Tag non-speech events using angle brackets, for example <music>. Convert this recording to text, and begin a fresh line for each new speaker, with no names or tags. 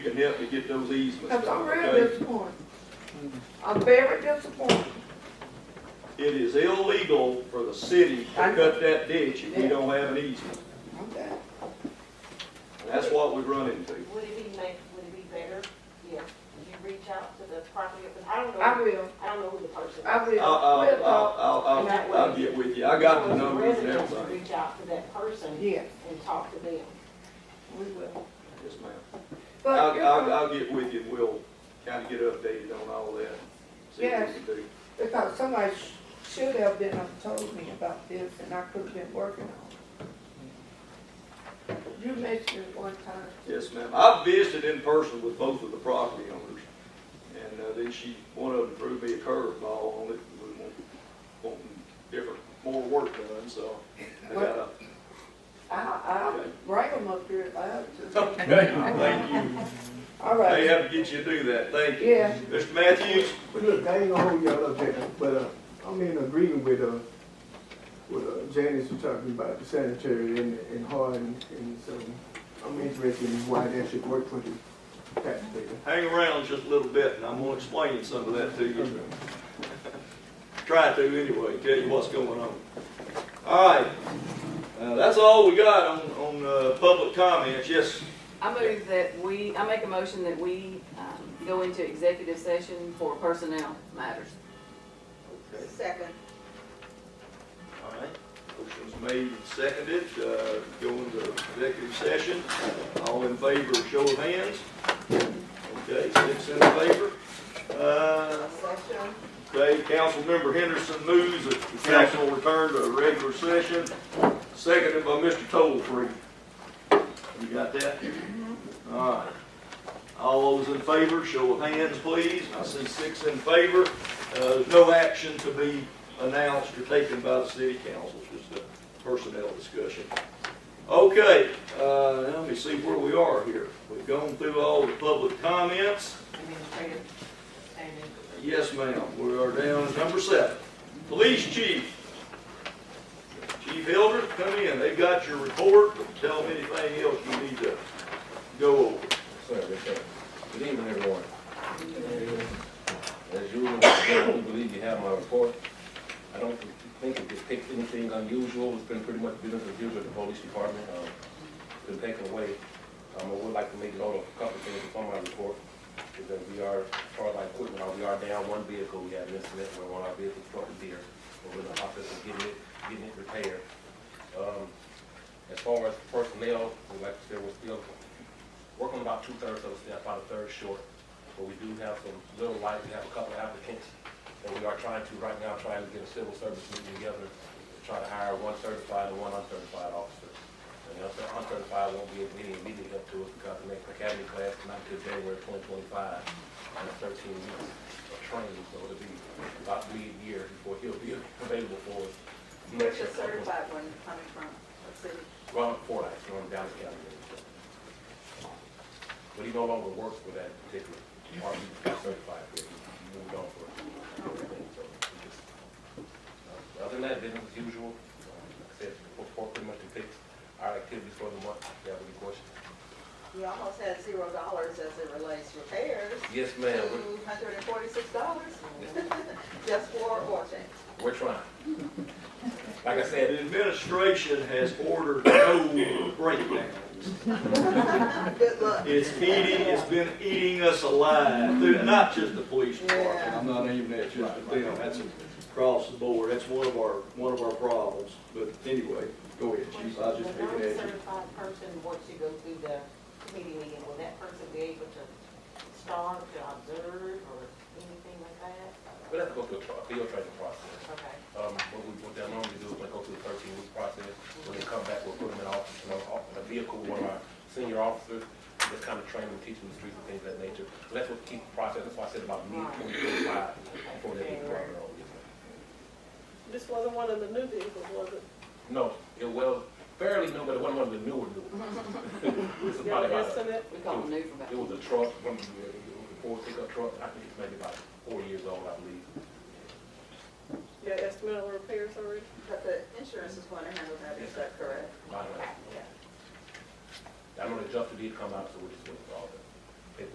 you can help me get those easements
Cause
done,
I'm real
okay?
disappointed. I'm very disappointed.
It is illegal for the city to
I know.
cut that ditch if we
Yeah.
don't have an easement.
Okay.
And That's what we run into.
Would it be make, would it be better if you reach out to the property, but I don't know,
I
I
will,
don't know who the person is.
I will.
I'll, I'll,
We'll uh, talk.
I'll, I'll,
That
I'll,
way.
I'll get with you. I got the
Because
numbers and
residents
everything.
Reach out to that person
Yes,
and talk to them.
we will.
Yes, ma'am.
But
I'll,
you
I'll,
know,
I'll get with you. We'll kind of get updated on all that. See what
Yes.
we can do.
because somebody sh- should have been up told me about this and I could have been working on it. You mentioned it one time.
Yes, ma'am. I've visited in person with both of the property owners. And, uh, then she, one of them threw me a curveball on it, was want- wanting different, more work done, so I got a,
I, I'll bring them up here if I have to.
thank you.
All
They
right,
have to get you to do that. Thank you.
yeah,
Mr. Matthews?
But look, I ain't gonna hold y'all up there, but, uh, I'm in agreement with, uh, with, uh, Janice, who talking about the sanitary and, and Hardin, and so I'm interested in why that should work for the taxpayer.
Hang around just a little bit, and I'm gonna explain some of that to you. Try to anyway, tell you what's going on. All right, uh, that's all we got on, on, uh, public comments. Yes,
I move that we, I make a motion that we um, go into executive session for personnel matters.
Okay,
Second.
all right. Motion's made and seconded, uh, go into executive session. All in favor, show of hands. Okay, six in favor. Uh,
Session.
okay, Councilmember Henderson moves that the council return to a regular session, seconded by Mr. Tolfree. You got that? All right. All those in favor, show of hands, please. I see six in favor. Uh, There's no action to be announced or taken by the city council, just a personnel discussion. Okay, uh, let me see where we are here. We've gone through all the public comments.
Administrative. Amy.
Yes, ma'am, we are down to number seven. Police chief. Chief Hilder, come in, they've got your report, tell them anything else you need to go over.
Sir, yes, sir. Good evening, everyone. As usual, I do believe you have my report. I don't think it depicts anything unusual. It's been pretty much business as usual at the police department. Um, it's Been taken away. Um, I would like to make note of a couple of things from my report, is that we are, as far as our equipment, uh, we are down one vehicle. We had an incident where one of our vehicles struck a deer. We're in the process of getting it, getting it repaired. Um, As far as personnel, we'd like to say we're still working about two-thirds of the staff, about a third short. But we do have some little light, we have a couple applicants, and we are trying to, right now, trying to get a civil service meeting together, to try to hire one certified and one uncertified officer. And the uncer- uncertified won't be immediately, immediately up to us because the next academy class is not till January twenty twenty-five, and it's thirteen weeks of training, so it'll be about mid-year before he'll be <laughs> available for us.
Where's the certified one coming from? What city?
Ron Fordyce, from Dallas County. But he no longer works for that particular department, he got certified for it, he moved on for it. So, he just- uh, Other than that, business as usual, Um, like I said, report pretty much depicts our activities for the month, if you have any questions.
You almost had zero dollars as it relates repairs.
Yes,
Two
ma'am, we're,
hundred and forty-six dollars <laughs> just for oil change.
we're trying. Like I said,
The administration has ordered no breakdowns.
Good luck.
It's eating, it's been eating us alive, through- not just the police department, I'm not aiming at just at them, that's across the board, that's one of our, one of our problems. But anyway, go ahead, chief, I was just
The
picking at you.
non-certified person, once you go through the committee meeting, will that person be able to start, to observe, or anything like that?
we have to go through a tri- field training process.
Okay.
Um, what we, what they normally do is they go through the thirteen week process, when they come back, we'll put them in office, you know, off- in a vehicle, with one of our senior officers, just kind of train them, teach them the streets and things of that nature. So that's what keeps the process, that's why I said about mid twenty twenty-five, before they get brought on. yes, ma'am.
This wasn't one of the new vehicles, was it?
No, it was fairly new, but it wasn't one of the newer new ones. <laughs> It was
Y'all
probably about, a-
guessing it?
We call them new for about.
it was a truck, one of the, it was a Ford pickup truck, I think it's maybe about four years old, I believe.
Y'all estimate on repairs already?
But the insurance is going to handle that, is that correct?
I don't know. I know the adjuster did come out, so we're just waiting for all that.